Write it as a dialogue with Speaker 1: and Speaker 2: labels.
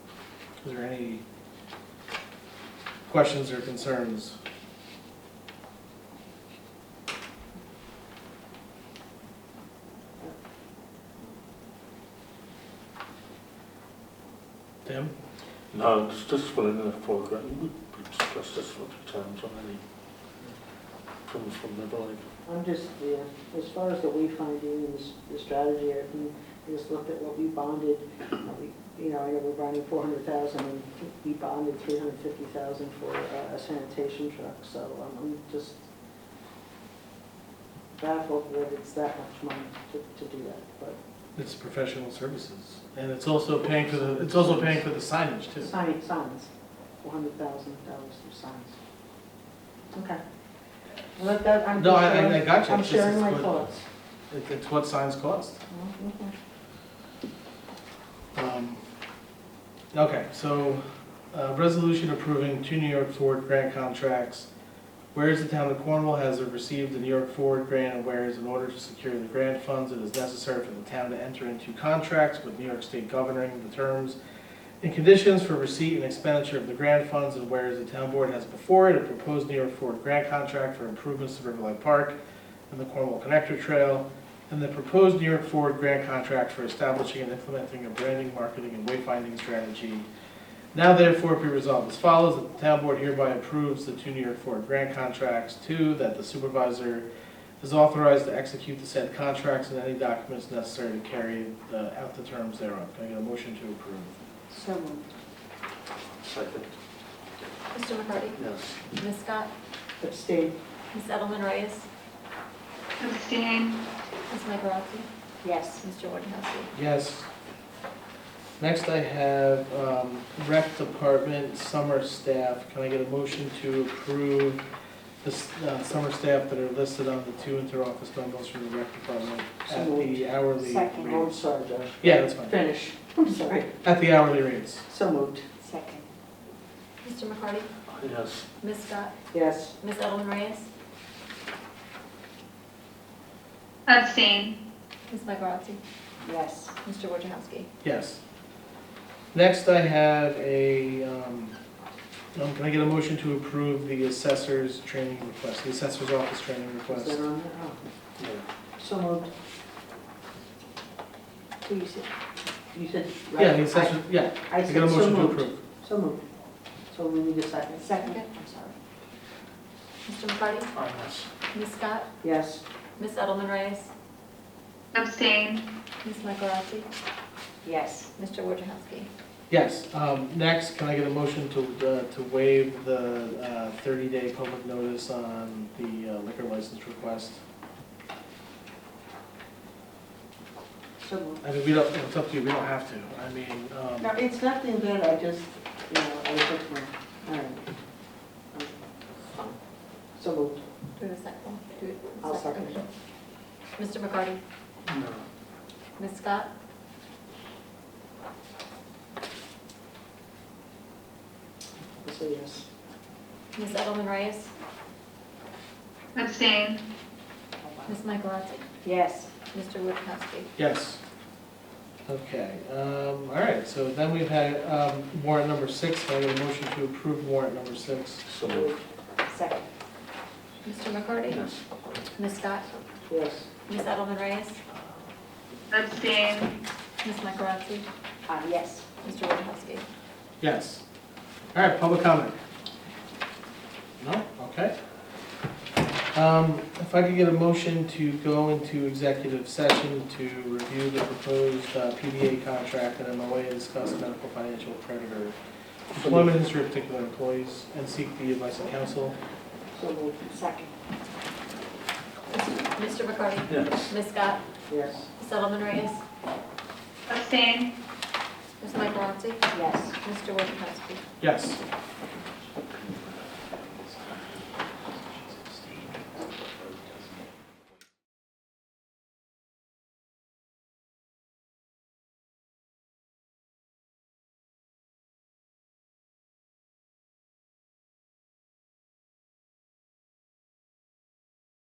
Speaker 1: Is there any questions or concerns? Tim?
Speaker 2: No, it's just well in the foreground, we discussed this a lot of times on any problems from the blind.
Speaker 3: I'm just, yeah, as far as the wayfinding and s- the strategy, I can just look at what we bonded. what we- You know, I know we're bonding four hundred thousand, and we bonded three hundred fifty thousand for uh, a sanitation truck, so um, I'm just baffled that it's that much money to, to do that, but
Speaker 1: It's professional services, and it's also paying for the, it's also paying for the signage too.
Speaker 3: sign, signs, four hundred thousand dollars for signs. Okay. Well, that, I'm
Speaker 1: No,
Speaker 3: just
Speaker 1: I- I- I
Speaker 3: sharing,
Speaker 1: got you.
Speaker 3: I'm
Speaker 1: It's just-
Speaker 3: sharing
Speaker 1: it's
Speaker 3: my
Speaker 1: what-
Speaker 3: thoughts.
Speaker 1: It- It's what signs cost.
Speaker 3: Mm, okay.
Speaker 1: Um, Okay, so, uh, resolution approving two New York Ford grant contracts. Whereas the town of Cornwall has received the New York Ford grant, and whereas in order to secure the grant funds, it is necessary for the town to enter into contracts with New York State governing the terms and conditions for receipt and expenditure of the grant funds, and whereas the town board has before it a proposed New York Ford grant contract for improvements to Riverlight Park and the Cornwall Connector Trail, and the proposed New York Ford grant contract for establishing and implementing a branding, marketing, and wayfinding strategy. Now therefore be resolved as follows, that the town board hereby approves the two New York Ford grant contracts. Two, that the supervisor is authorized to execute the said contracts and any documents necessary to carry uh, out the terms thereof. Can I get a motion to approve?
Speaker 3: So moved.
Speaker 2: Second,
Speaker 4: Mr. McCarty?
Speaker 2: yes.
Speaker 4: Ms. Scott?
Speaker 3: Abstain.
Speaker 4: Ms. Edelman Reyes?
Speaker 5: Abstain.
Speaker 4: Ms. Michaelozzi?
Speaker 3: Yes.
Speaker 4: Mr. Wojciechowski?
Speaker 1: Yes. Next I have um, rec department summer staff. Can I get a motion to approve the s- uh, summer staff that are listed on the two inter-office bundles from the rec department at
Speaker 3: So moved.
Speaker 1: the hourly
Speaker 3: Second, I'm
Speaker 1: rates?
Speaker 3: sorry, Josh.
Speaker 1: Yeah, that's fine.
Speaker 3: Finish, I'm sorry.
Speaker 1: At the hourly rates.
Speaker 3: So moved.
Speaker 4: Second. Mr. McCarty?
Speaker 2: Yes,
Speaker 4: Ms. Scott?
Speaker 3: Yes,
Speaker 4: Ms. Edelman Reyes?
Speaker 5: Abstain.
Speaker 4: Ms. Michaelozzi?
Speaker 3: yes.
Speaker 4: Mr. Wojciechowski?
Speaker 1: Yes. Next I have a, um, um, can I get a motion to approve the assessor's training request, the assessor's office training
Speaker 3: Is
Speaker 1: request?
Speaker 3: that on there? Oh,
Speaker 2: yeah,
Speaker 3: So moved. So you said, you said, right?
Speaker 1: Yeah, the assessor, yeah.
Speaker 3: I- I
Speaker 1: Can I get a
Speaker 3: said so
Speaker 1: motion to
Speaker 3: moved.
Speaker 1: approve?
Speaker 3: So moved. So we need a second.
Speaker 4: Okay, I'm sorry. Mr. McCarty?
Speaker 2: Ah, yes.
Speaker 4: Ms. Scott?
Speaker 3: Yes,
Speaker 4: Ms. Edelman Reyes?
Speaker 5: Abstain.
Speaker 4: Ms. Michaelozzi?
Speaker 3: yes.
Speaker 4: Mr. Wojciechowski?
Speaker 1: Yes, um, next, can I get a motion to, uh, to waive the uh, thirty-day public notice on the uh, liquor license request?
Speaker 3: So moved.
Speaker 1: I mean, we don't, it's up to you, we don't have to, I mean,
Speaker 3: No,
Speaker 1: um,
Speaker 3: it's nothing good, I just, you know, I took my, all right. Um, So moved.
Speaker 4: Do it a second. Do it a
Speaker 3: I'll second it.
Speaker 4: Mr. McCarty?
Speaker 2: No,
Speaker 4: Ms. Scott?
Speaker 3: I'll say yes.
Speaker 4: Ms. Edelman Reyes?
Speaker 5: Abstain.
Speaker 4: Ms. Michaelozzi?
Speaker 3: Yes.
Speaker 4: Mr. Wojciechowski?
Speaker 1: yes. Okay, um, all right, so then we've had, um, warrant number six, can I get a motion to approve warrant number six?
Speaker 2: so moved,
Speaker 3: Second.
Speaker 4: Mr. McCarty?
Speaker 2: yes.
Speaker 4: Ms. Scott?
Speaker 3: Yes.
Speaker 4: Ms. Edelman Reyes?
Speaker 5: Abstain.
Speaker 4: Ms. Michaelozzi?
Speaker 3: Uh, yes.
Speaker 4: Mr. Wojciechowski?
Speaker 1: Yes. All right, public comment? No? Okay. Um, If I could get a motion to go into executive session to review the proposed uh, PDA contract and MOA and discuss medical financial creditor employment history of particular employees and seek the advice of counsel.
Speaker 3: So moved. Second.
Speaker 4: Mr. McCarty?
Speaker 2: Yes,
Speaker 4: Ms. Scott?
Speaker 3: Yes.
Speaker 4: Ms. Edelman Reyes?
Speaker 5: Abstain.
Speaker 4: Ms. Michaelozzi?
Speaker 3: Yes.
Speaker 4: Mr. Wojciechowski?
Speaker 1: Yes.